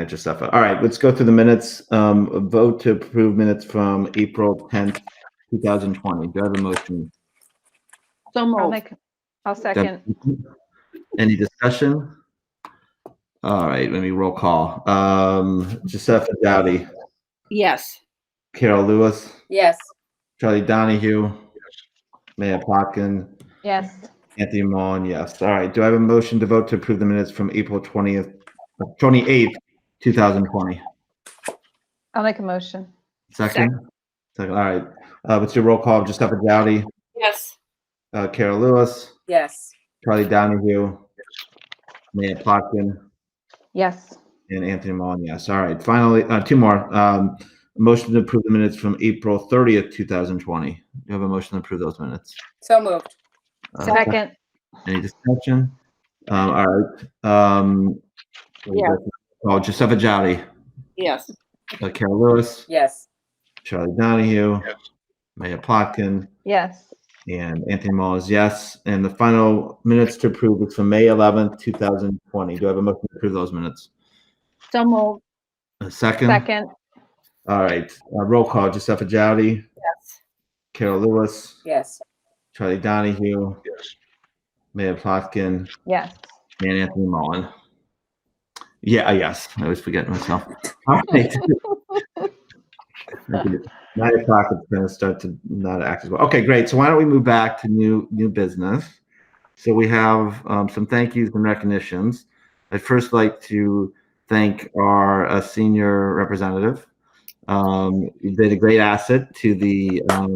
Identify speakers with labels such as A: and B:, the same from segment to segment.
A: Manage your stuff out. All right, let's go through the minutes. Um, vote to approve minutes from April tenth, two thousand twenty. Do I have a motion?
B: So
C: I'll
B: moved.
C: make, I'll second.
A: Any discussion? All right, let me roll call. Um, Giuseppe Dowdy,
B: Yes.
A: Carol Lewis,
D: Yes.
A: Charlie Donahue, Mayor Plotkin,
C: Yes,
A: Anthony Mullen, yes. All right, do I have a motion to vote to approve the minutes from April twentieth, twenty-eighth, two thousand twenty?
C: I'll make a motion.
A: Second? Second, all right. Uh, what's your roll call? Giuseppe Dowdy?
B: Yes.
A: Uh, Carol Lewis,
D: Yes.
A: Charlie Donahue, Mayor Plotkin,
C: Yes,
A: and Anthony Mullen, yes. All right, finally, uh, two more. Um, motion to approve the minutes from April thirtieth, two thousand twenty. Do you have a motion to approve those minutes?
D: So moved.
A: Uh,
C: second.
A: Any discussion? Um, all right, um.
B: Yeah.
A: Oh, Giuseppe Jowdy,
B: Yes.
A: uh, Carol Lewis,
D: Yes.
A: Charlie Donahue, Mayor Plotkin,
C: Yes,
A: and Anthony Mullen is yes. And the final minutes to approve is from May eleventh, two thousand twenty. Do I have a motion to approve those minutes?
B: So moved.
A: A second?
C: second.
A: All right. Uh, roll call. Giuseppe Jowdy.
B: Yes.
A: Carol Lewis.
D: Yes.
A: Charlie Donahue. Mayor Plotkin.
C: Yes.
A: And Anthony Mullen. Yeah, uh, yes. I always forget myself. All right. Nine o'clock is going to start to not act as well. Okay, great. So why don't we move back to new new business? So we have um, some thank yous and recognitions. I'd first like to thank our uh, senior representative. Um, you've been a great asset to the. Um,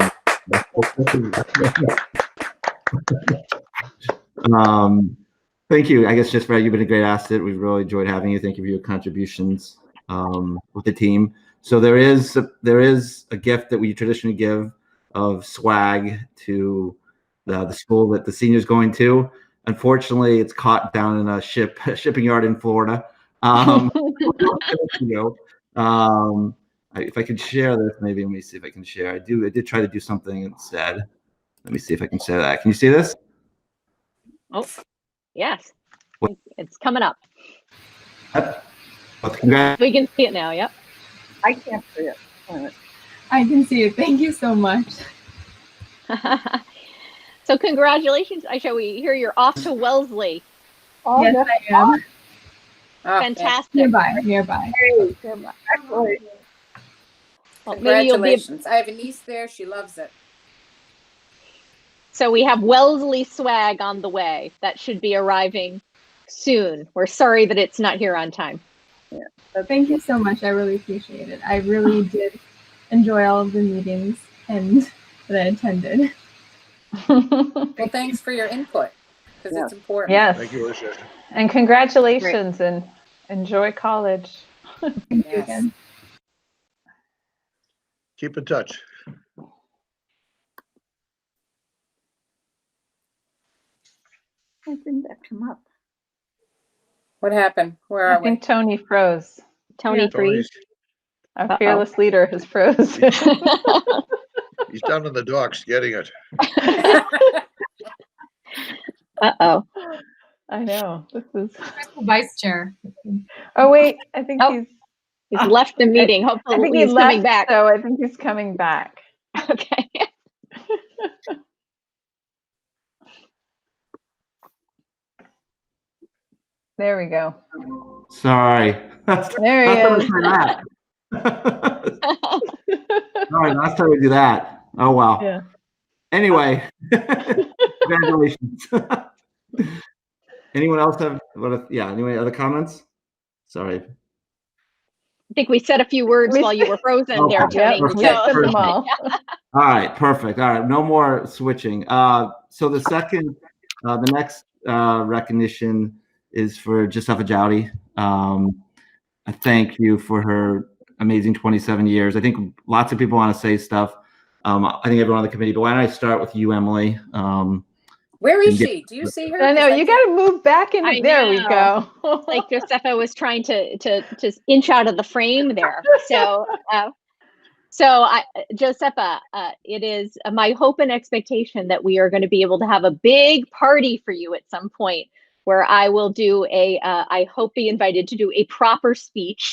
A: um, Thank you. I guess just Brad, you've been a great asset. We've really enjoyed having you. Thank you for your contributions um, with the team. So there is there is a gift that we traditionally give of swag to the, the school that the senior's going to. Unfortunately, it's caught down in a ship shipping yard in Florida. Um, you know, um, I- if I could share this, maybe let me see if I can share. I do. I did try to do something instead. Let me see if I can share that. Can you see this?
E: Oh, yes.
A: What-
E: It's coming up.
A: Well, Oh, congrats.
E: We can see it now. Yep.
B: I can't see it. Wait a minute.
F: I can see it. Thank you so much.
E: so congratulations, Aisha. We hear you're off to Wellesley.
B: Oh,
F: yes,
B: that's
F: I am.
C: Oh,
D: Ah,
E: Fantastic.
F: Nearby, nearby.
B: great. Excellent.
E: Well, maybe you'll be.
D: Congratulations. I have a niece there. She loves it.
E: So we have Wellesley swag on the way. That should be arriving soon. We're sorry that it's not here on time.
F: Thank you so much. I really appreciate it. I really did enjoy all of the meetings and that I attended.
D: Well, thanks for your input because it's important.
C: Yes.
G: Thank you, Alicia.
C: And congratulations and enjoy college.
F: Thank you
D: Yes.
F: again.
G: Keep in touch.
B: I didn't that come up.
D: What happened? Where
C: I
D: are we?
C: think Tony froze.
E: Tony
G: Tony's,
E: freeze.
C: Our
E: Uh-oh.
C: fearless leader has froze.
G: he's down in the docks getting it.
E: uh oh.
C: I know. This is.
F: Vice Chair.
C: Oh wait, I think
E: Oh,
C: he's.
E: He's left the meeting.
C: Ah, I think
E: Hopefully
C: he
E: he's coming
C: left,
E: back.
C: so I think he's coming back.
E: Okay.
C: There we go.
A: Sorry.
C: There he is.
A: Sorry, last time we do that. Oh wow.
C: Yeah.
A: Anyway, congratulations. anyone else have what? If, yeah. Anyway, other comments? Sorry.
E: I think we said a few words
C: We
E: while you were frozen
A: Okay.
E: there, Tony.
C: Yep,
A: Perfect.
C: we said
E: So-
C: them all.
A: All right. Perfect. All right. No more switching. Uh, so the second, uh, the next uh, recognition is for Giuseppe Jowdy. Um, I thank you for her amazing 27 years. I think lots of people want to say stuff. Um, I think everyone on the committee, but why don't I start with you, Emily? Um,
D: Where is she? Do you see her?
C: I know you got to move back
E: I
C: in. There we
E: know.
C: go.
E: like Josefa was trying to to to inch out of the frame there. So uh, so I Josefa, uh, it is my hope and expectation that we are going to be able to have a big party for you at some point where I will do a uh, I hope be invited to do a proper speech